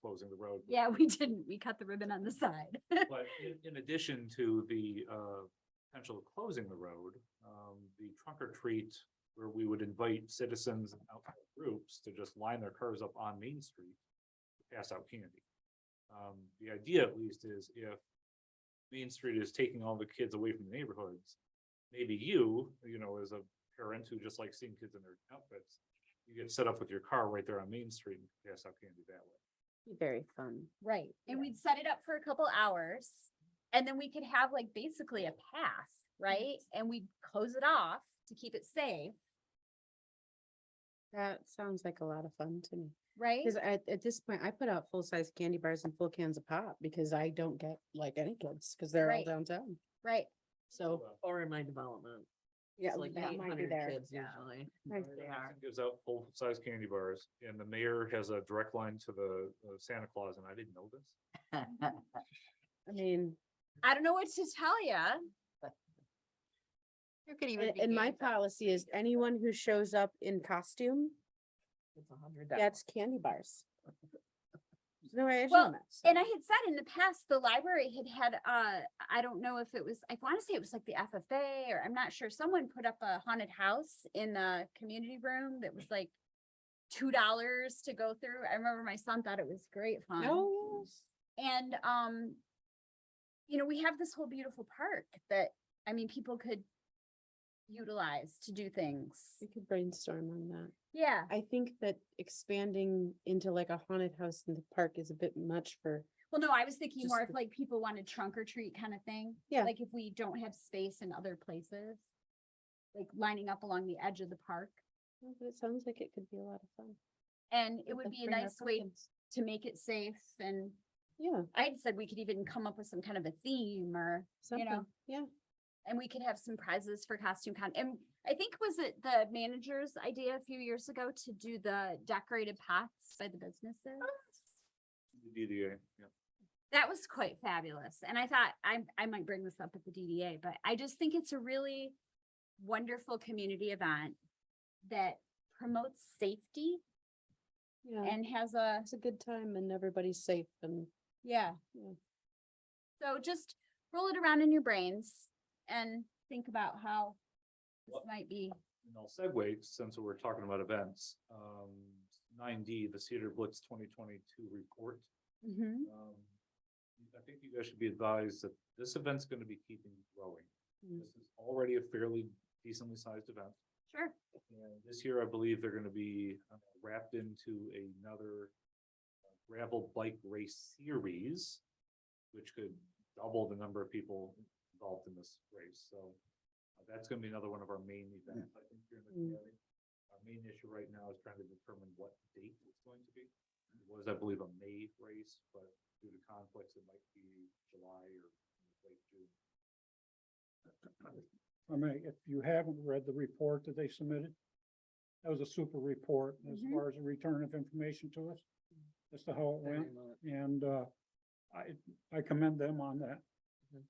closing the road. Yeah, we didn't. We cut the ribbon on the side. But in, in addition to the, uh, potential of closing the road, um, the trunk or treat where we would invite citizens and outside groups to just line their cars up on Main Street, to pass out candy. Um, the idea at least is if Main Street is taking all the kids away from the neighborhoods, maybe you, you know, as a parent who just likes seeing kids in their outfits, you get set up with your car right there on Main Street and pass out candy that way. Very fun. Right. And Yeah. we'd set it up for a couple hours and then we could have like basically a path, right? And we'd close it off to keep it safe, That sounds like a lot of fun to me. right? Cause at, at this point, I put out full-size candy bars and full cans of pop because I don't get like any kids, cause they're all Right. downtown. Right. So, Oh, Or in my development. yeah, it's like that might be 800 there. kids Usually. Nice. They are. Gives out full-size candy bars and the mayor has a direct line to the uh, Santa Claus and I didn't know this. I mean, I don't know what to tell ya. There could even a- be. and my games out policy is anyone who shows up in costume It's a hundred gets candy bars. There's No way I Well, show that. so- And I had said in the past, the library had had, uh, I don't know if it was, I want to say it was like the FFA or I'm not sure. Someone put up a haunted house in the community room that was like two dollars to go through. I remember my son thought it was great fun. No, yes. And, um, you know, we have this whole beautiful park that, I mean, people could utilize to do things. we could brainstorm on that. Yeah, I think that expanding into like a haunted house in the park is a bit much for, well, no, I was thinking more Just of the- like people want a trunk or treat kind of thing. Yeah. Like if we don't have space in other places, like lining up along the edge of the park. Oh, but it sounds like it could be a lot of fun. And it Let would us be a bring our nice way pumpkins. to make it safe and Yeah, I'd said we could even come up with some kind of a theme or, you know. something, yeah. And we could have some prizes for costume con, and I think was it the manager's idea a few years ago to do the decorated pots by the businesses? The DDA, yeah. That was quite fabulous, and I thought I, I might bring this up at the DDA, but I just think it's a really wonderful community event that promotes safety Yeah, and has a, it's a good time and everybody's safe and yeah. Yeah. So just roll it around in your brains and think about how this Well, might be. And I'll segue, since we're talking about events, um, nine D, the Cedar Blitz twenty twenty-two report. Mhm. Um, I think you guys should be advised that this event's gonna be keeping growing. Mm. This is already a fairly decently sized event. Sure. And this year, I believe they're gonna be uh, wrapped into another uh, gravel bike race series, which could double the number of people involved in this race, so uh, that's gonna be another one of our main events, I think, here in the Mm. county. Our main issue right now is trying to determine what date it's going to be. It was, I believe, a May race, but due to conflicts, it might be July or late June. I mean, if you haven't read the report that they submitted, that was a super report as Mhm. far as the return of information to us, as to how it went, and, uh, I, I commend them on that. Mhm.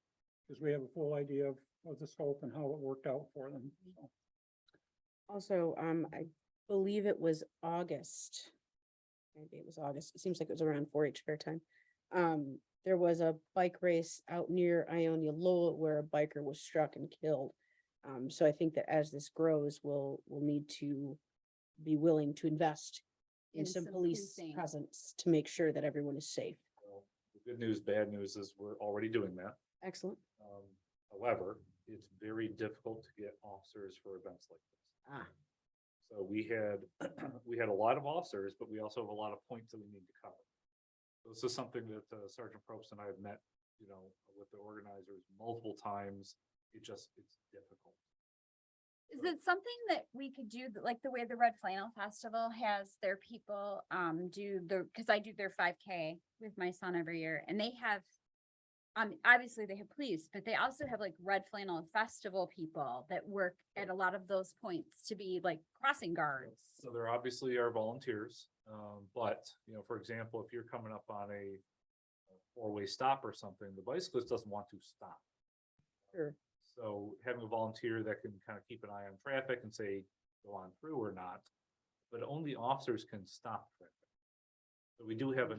Because we have a full idea of, of the scope and how it worked out for them, so. also, um, I believe it was August. Maybe it was August. It seems like it was around four H fair time. Um, there was a bike race out near Ionia Lowell where a biker was struck and killed. Um, so I think that as this grows, we'll, we'll need to be willing to invest in In some some police policing. presence to make sure that everyone is safe. So the good news, bad news is we're already doing that. Excellent. Um, however, it's very difficult to get officers for events like this. Ah. So we had, we had a lot of officers, but we also have a lot of points that we need to cover. This is something that uh, Sergeant Probst and I have met, you know, with the organizers multiple times. It just, it's difficult. Is Right. it something that we could do, th- like the way the Red Flannel Festival has their people um do the, cause I do their five K with my son every year and they have. Um, obviously they have police, but they also have like Red Flannel Festival people that work at a lot of those points to be like crossing guards. So there obviously are volunteers, um, but, you know, for example, if you're coming up on a a four-way stop or something, the bicyclist doesn't want to stop. Sure. So having a volunteer that can kind of keep an eye on traffic and say, go on through or not, but only officers can stop traffic. So we do have a